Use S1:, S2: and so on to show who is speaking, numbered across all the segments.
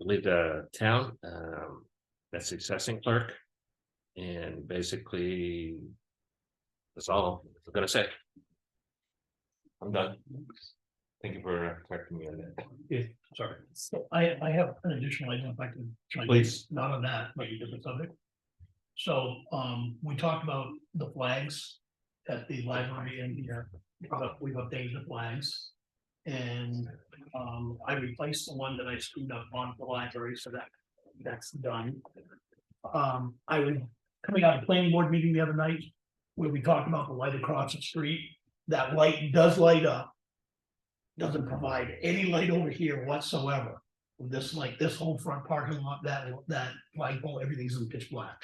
S1: leave the town, um, that's the assessing clerk. And basically. That's all I'm gonna say. I'm done. Thank you for correcting me on that.
S2: Sorry, so I, I have an additional item if I can. try to-
S1: Please.
S2: Not on that, but a different subject. So, um, we talked about the flags at the library and here, we've up- we've updated the flags. And, um, I replaced the one that I screwed up on the library, so that, that's done. Um, I was coming out of planning board meeting the other night, where we talked about the light across the street, that light does light up doesn't provide any light over here whatsoever. This like this whole front parking lot, that that flagpole, everything's in pitch black.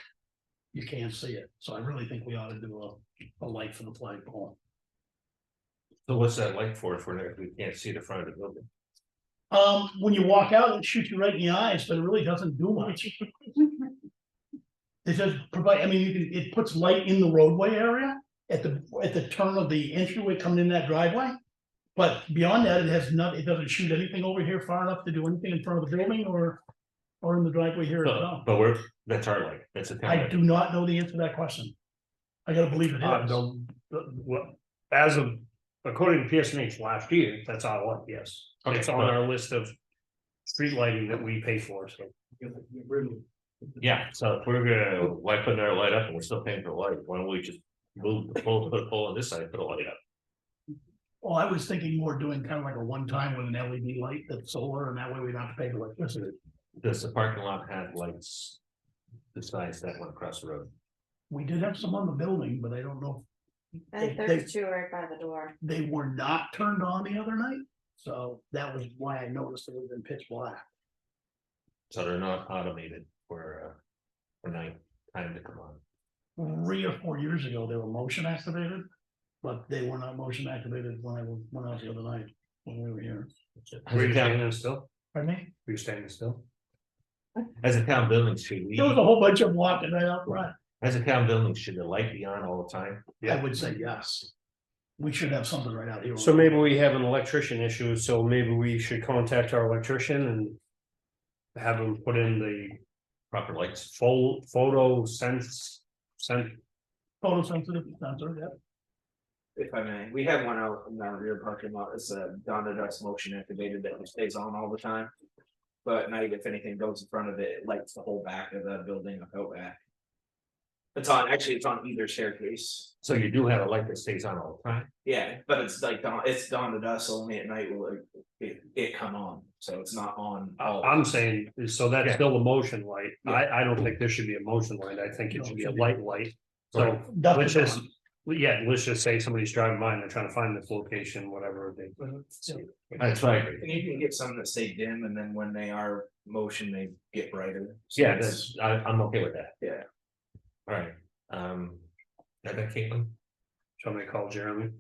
S2: You can't see it, so I really think we ought to do a a light for the flagpole.
S1: So what's that like for, if we're- if we can't see the front of the building?
S2: Um, when you walk out, it shoots you right in the eyes, but it really doesn't do much. It does provide, I mean, you can, it puts light in the roadway area at the at the turn of the entryway coming in that driveway. But beyond that, it has not, it doesn't shoot anything over here far enough to do anything in front of the building or or in the driveway here as well.
S1: But but we're, that's our light, that's a town
S2: I
S1: light.
S2: do not know the answer to that question. I gotta believe it
S3: Uh,
S2: is.
S3: the, the- what, as of, according to PSNH last year, that's our one, yes.
S1: Okay,
S3: It's on
S1: well-
S3: our list of street lighting that we pay for, so.
S1: Yeah, so if we're gonna, why putting our light up and we're still paying for light, why don't we just move the pole, put a pole on this side, put a light up?
S2: Well, Oh, I was thinking more doing kind of like a one time with an LED light that's solar and that way we don't have to pay for electricity.
S1: Does the parking lot have lights? Besides that one across the road?
S2: We did have some on the building, but I don't know
S4: I think
S2: They-
S4: there's two right by the door.
S2: if they were not turned on the other night. So that was why I noticed it was in pitch black.
S1: So they're not automated for, uh, for night time to come on.
S2: Three or four years ago, they were motion activated, but they were not motion activated when I was, when I was the other night, when we were here.
S1: As
S3: Were
S1: a town,
S3: you standing there still?
S2: Pardon me?
S3: Were you standing still?
S1: as a town building, should we,
S2: There was a whole bunch of them walking right out front.
S1: as a town building, should the light be on all the time?
S2: I would say yes. We should have something right out here.
S3: So maybe we have an electrician issue, so maybe we should contact our electrician and. Have him put in the
S1: Proper lights?
S3: pho- photo sense, sense,
S2: Photosensitive sensor, yeah.
S5: If I may, we have one out in our rear parking lot, it's a Donna Dust motion activated that stays on all the time. But now if anything goes in front of it, it lights the whole back of the building up out back. It's on, actually, it's on either staircase,
S1: So you do have a light that stays on all the time?
S5: yeah, but it's like, dawn- it's Dawn to Dust only at night will it- it, it come on, so it's not on. all-
S3: Uh, I'm saying, so that's
S1: Yeah.
S3: still a motion light, I, I don't think there should be a motion light, I think
S2: No,
S3: it should
S2: it
S3: be a
S2: should be-
S3: light light. So,
S2: Dust
S3: which
S2: is
S3: is, well, yeah, let's just say somebody's driving by and they're trying to find this location, whatever they.
S1: Uh-huh. That's right.
S5: And you can get some that stay dim, and then when they are motion, they get brighter. So
S1: Yeah,
S5: it's-
S1: that's, I, I'm okay with that.
S5: Yeah.
S1: All right, um, that, that Caitlin?
S3: Somebody call Jeremy.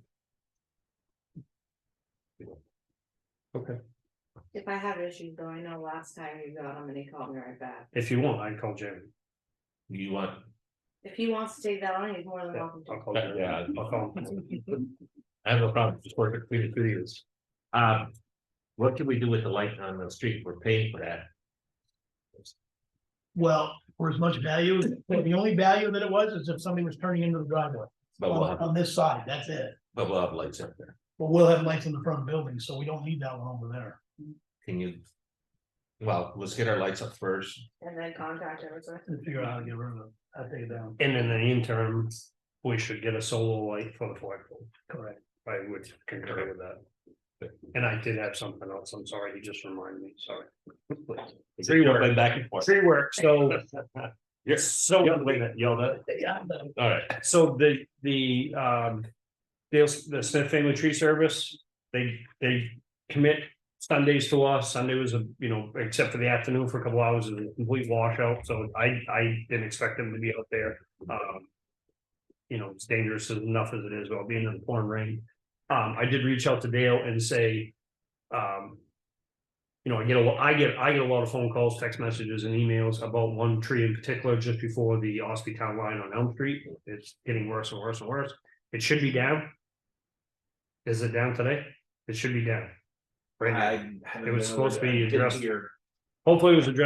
S4: If I have issues though, I know last time you got him and he called me right back.
S3: If you want, I'd call Jeremy.
S1: You want
S4: If he wants to take that on, he's more than welcome to.
S3: I'll call
S1: Yeah,
S3: Jeremy.
S1: yeah.
S3: I'll call him.
S1: I have no problem, just work it through the two years. Um, what can we do with the light on the street? We're paying for that.
S2: Well, for as much value, the only value that it was is if somebody was turning into the driveway
S3: Oh,
S1: But we'll
S2: on
S1: have,
S2: on this side, that's it.
S1: but we'll have lights up there.
S2: But we'll have lights in the front building, so we don't need that one over there.
S1: Can you? Well, let's get our lights up first.
S4: And then contact everyone.
S2: And figure out how to get rid of it. I take it down,
S3: And in the interim, we should get a solar light for the flagpole.
S2: correct.
S3: I would concur with that. And I did have something else, I'm sorry, you just reminded me, sorry. Tree work.
S1: Jumping Back and forth.
S3: Tree work, so,
S1: Yes,
S3: so.
S1: yelled at.
S2: Yeah, but
S1: All right,
S3: So the, the, um, the, the Smith Family Tree Service, they, they commit Sundays to us. Sunday was a, you know, except for the afternoon for a couple hours, it was a complete washout, so I, I didn't expect them to be out there, um. You know, it's dangerous enough as it is, while being in the pouring rain. Um, I did reach out to Dale and say, um. You know, I get a lot, I get, I get a lot of phone calls, text messages and emails about one tree in particular just before the Ospey Town Line on Elm Street. It's getting worse and worse and worse. It should be down. Is it down today? It should be down. Right now.
S5: I haven't
S3: It was
S5: been over
S3: supposed to
S5: there.
S3: be
S5: I didn't
S3: addressed-
S5: hear
S2: Hopefully it was addressed